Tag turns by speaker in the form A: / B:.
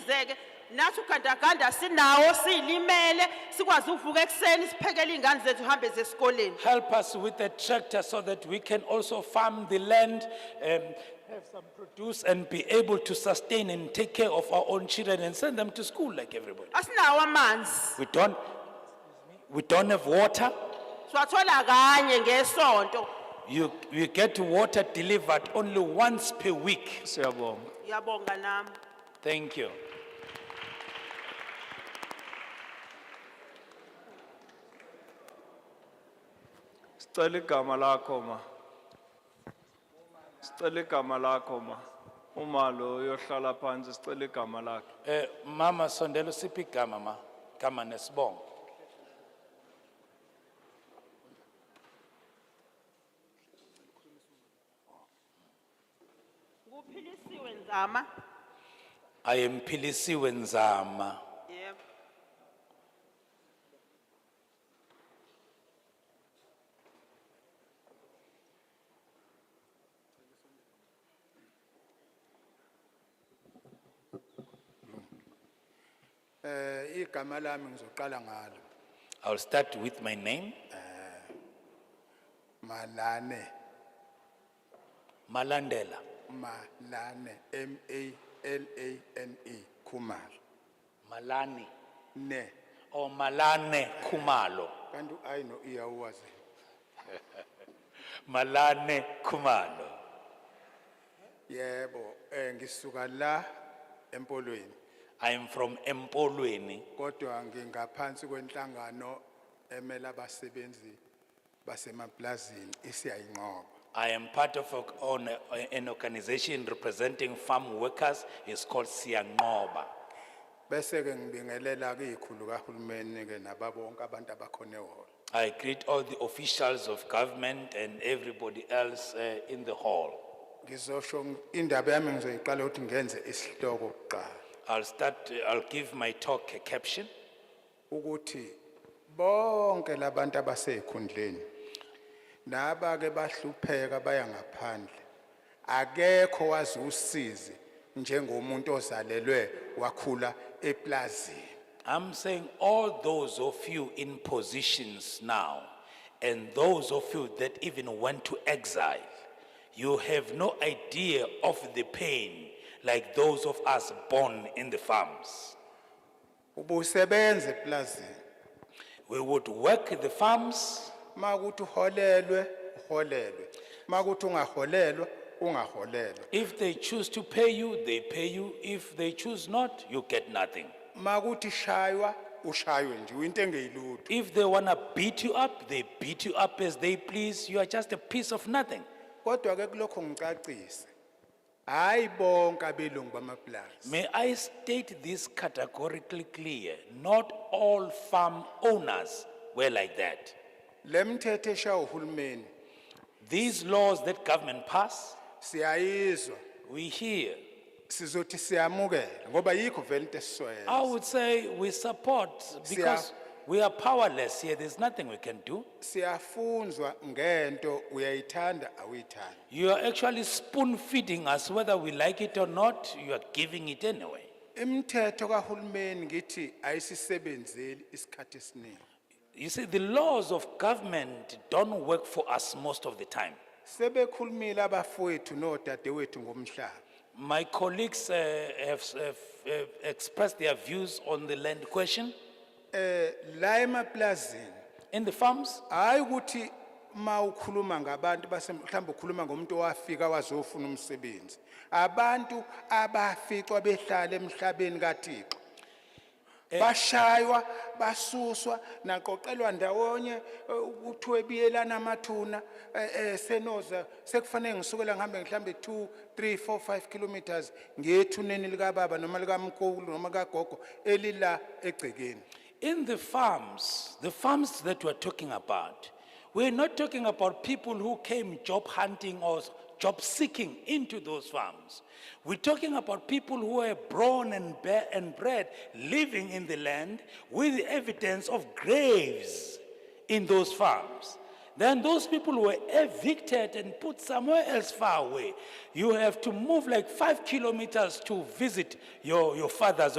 A: sisebenzeke nathi ugandaganda sinawo siyilimele sikwazi ukuvuka ekuseni siphekele iy'ngane zethu uhambe zesikoleni
B: Help us with the tractor so that we can also farm the land, um, have some produce and be able to sustain and take care of our own children and send them to school like everybody.
A: asinawo amanzi
B: We don't, we don't have water.
A: siwathola kanye ngesonto
B: You, you get water delivered only once per week.
C: Siyabonga.
A: ngiyabonga nami
B: Thank you.
C: Sicela igama lakho ma. Sicela igama lakho ma. Uma lo uyohlala phansi sicela igama lakhe.
B: Eh, Mama Sondelo Sipika, Mama, kama nesbong.
A: kuphilisiwe nzama
B: I am Pilisiwe Nzama.
A: yebo
D: Eh igama lami ngizoqala ngalo
B: I'll start with my name,
D: Malane
B: Malandela.
D: Malane M A L A N E Khumalo
B: Malani,
D: ne
B: or Malane Kumalo.
D: kanti i no iyawazi
B: Malane Kumalo.
D: yebo eh ngisuka la empolweni
B: I am from Empolweni.
D: kodwa ngingaphansi kwenhlangano emela abasebenzi basemaplazini isiyayinqoba
B: I am part of a- on a- an organization representing farm workers. It's called Siangoba.
D: bese ke ngibingelela kikhulu kahulumeni ke nababonke abantu abakhona ehholo
B: I greet all the officials of government and everybody else uh, in the hall.
D: ngizosho indaba yami ngizoyiqala ukuthi ngenze isihloko kuqala
B: I'll start, uh, I'll give my talk a caption.
D: ukuthi bonke labantu abasekhundleni naba ke bahlupheka baya ngaphandle akekho wazi usizi njengomuntu ozalelwe wakhula eplazini
B: I'm saying all those of you in positions now and those of you that even went to exile, you have no idea of the pain like those of us born in the farms.
D: ubusebenza eplazini
B: We would work the farms,
D: makuthi uholelwe uholelwe makuthi ungaholelwa ungaholelwa
B: if they choose to pay you, they pay you, if they choose not, you get nothing.
D: makuthi shaywa ushaywe nje into engeyilutho
B: If they wanna beat you up, they beat you up as they please, you are just a piece of nothing.
D: kodwa ke kulokho ngicacise hayi bonke abelungu bamaplazi
B: May I state this categorically clear, not all farm owners were like that.
D: lemthetho esha uhulumeni
B: These laws that government pass,
D: siyayizwa
B: we hear.
D: sizothi siyamukela ngoba yikho vele
B: I
D: into esiswele
B: would say we support because
D: Siya-
B: we are powerless here, there's nothing we can do.
D: siyafunzwa ngento uyayithanda awuyithandi
B: You are actually spoon feeding us whether we like it or not, you are giving it anyway.
D: imithetho kahulumeni ngithi ayisisebenzeli isikhathi esiningi
B: You see, the laws of government don't work for us most of the time.
D: sebekhulumile abafowethu nodadewethu ngomhlaba
B: My colleagues uh, have, have have expressed their views on the land question
D: eh la emaplazini
B: in the farms.
D: hayi ukuthi ma ukhuluma ngabantu base mhlawumbe ukhuluma ngomuntu owafika wazofuna umsebenzi abantu abaficwa behlala emhlabeni kaThixo bashaywa basuswa naqoqelwa ndawonye eh, kuthiwe biyelana amathuna eh, eh, senoza sekufanele ngisukela ngihambe mhlawumbe 2 3 4 5 kilometers ngethuneni likababa noma likamkhulu noma likagogo elila egcekeni
B: In the farms, the farms that we're talking about, we're not talking about people who came job hunting or job seeking into those farms. We're talking about people who were born and, ba- and bred living in the land with the evidence of graves in those farms. Then those people were evicted and put somewhere else far away. You have to move like five kilometers to visit your, your fathers or